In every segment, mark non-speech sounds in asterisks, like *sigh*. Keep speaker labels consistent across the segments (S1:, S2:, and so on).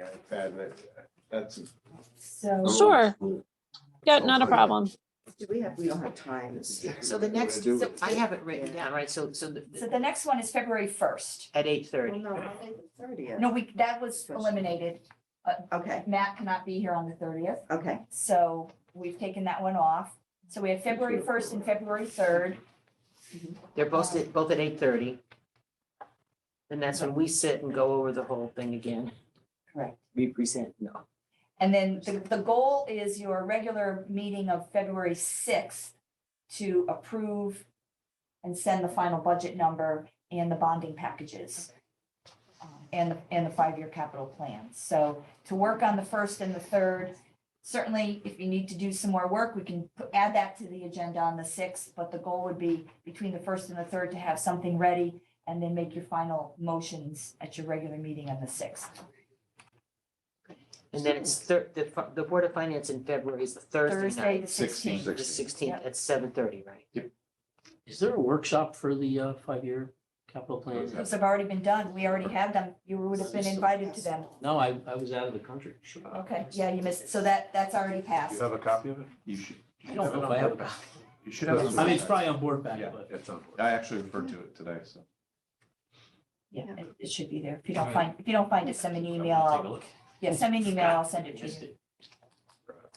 S1: iPad, and that- that's.
S2: So
S1: Oh.
S3: Sure. Yeah, not a problem.
S4: Do we have, we don't have times.
S5: So the next,
S1: Do
S5: so
S1: it.
S5: I have it written down, right? So, so the-
S2: so the next one is February first.
S5: at eight
S4: Well,
S5: thirty.
S4: no, I think the thirtieth.
S2: No, we, that was eliminated.
S4: Okay,
S2: Matt cannot be here on the thirtieth,
S4: okay.
S2: so we've taken that one off. So we have February first and February third.
S5: They're both, at- both at eight thirty. And that's when we sit and go over the whole thing again.
S2: Correct.
S5: Represent, no.
S2: And then the, the goal is your regular meeting of February sixth to approve and send the final budget number and the bonding packages um, and, the- and the five-year capital plan. So to work on the first and the third, certainly if you need to do some more work, we can pu- add that to the agenda on the sixth. But the goal would be between the first and the third to have something ready and then make your final motions at your regular meeting on the sixth.
S5: And then it's thir, the, fi- the Board of Finance in February is the Thursday
S2: Thursday,
S5: night,
S2: the
S1: Sixteenth.
S2: sixteenth.
S5: the sixteenth
S2: Yep.
S5: at seven thirty, right?
S6: Is there a workshop for the uh, five-year capital plan?
S2: Those have already been done. We already have them. You would have been invited to them.
S6: No, I, I was out of the country.
S2: Okay, yeah, you missed, so that, that's already passed.
S7: You have a copy of it? You should. you
S6: I
S7: should
S6: don't know
S7: it
S6: if
S7: on
S6: I have a
S7: board.
S6: copy.
S7: You should have. it on
S6: I mean, it's
S7: board.
S6: probably on board back,
S7: Yeah,
S6: but
S7: it's on board.
S1: I actually referred to it today, so.
S2: Yeah, it- it should be there. If you don't find, if you don't find it, send me an email.
S6: I'll take a
S2: I'll-
S6: look.
S2: Yeah, send me an email. I'll send it to
S6: Just
S2: you.
S6: it.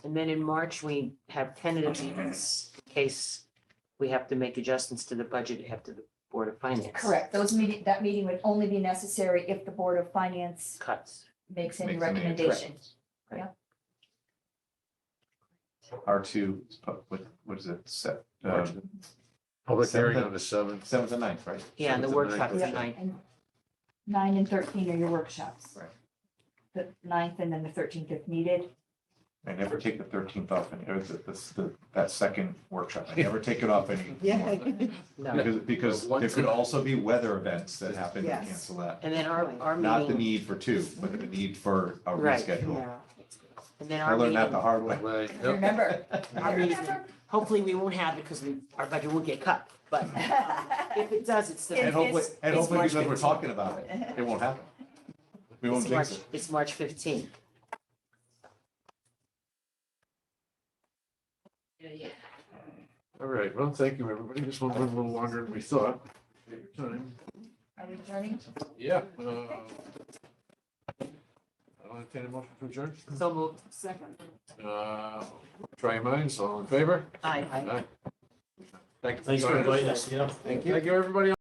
S5: And then in March, we have tentative meetings in case we have to make adjustments to the budget after the Board of Finance.
S2: Correct. Those meeting, that meeting would only be necessary if the Board of Finance
S5: Cuts.
S2: makes any
S1: Makes any
S2: recommendation.
S1: R two, what, what is it, set, uh,
S7: March.
S8: Public hearing
S1: Seventh.
S8: on the seventh.
S1: seventh and ninth, right?
S5: Yeah, and the
S8: Seventh and
S5: workshop
S8: ninth.
S5: tonight.
S2: And Nine and thirteen are your workshops.
S1: Right.
S2: The ninth and then the thirteenth if needed.
S1: I never take the thirteenth off, and, or the, this- the, that second workshop, I never take it off anymore.
S5: No.
S1: Because, because there could also be weather events that happen to
S4: Yes.
S1: cancel that.
S5: And then our, our
S1: Not the
S5: meeting,
S1: need for two, but the need for a
S5: Right.
S1: reschedule.
S5: and then
S1: I
S5: our
S1: learned that the
S5: meeting,
S1: hard way.
S8: Right,
S1: *laughs*
S8: yep.
S2: Remember. *laughs*
S5: our meeting, hopefully we won't have it because we, our budget will get cut, but um, if it does, it's
S1: And
S2: It's-
S5: the,
S1: hopefully,
S2: it's-
S1: and
S5: it's
S1: hopefully
S5: March
S1: because we're
S5: 15th.
S1: talking about it, it won't happen. We won't
S5: it's March,
S1: jinx it.
S5: it's March fifteenth.
S8: All right, well, thank you, everybody. This one went a little longer than we thought. Take your time.
S2: Are we adjourning?
S8: Yeah. uh, I'll entertain a motion to adjourn.
S5: So moved. Second.
S8: Uh, Try your minds, all in favor?
S5: Aye.
S8: Aye. Thank you.
S6: Thanks for
S8: joining us.
S6: inviting us, yeah.
S8: Thank you, everybody.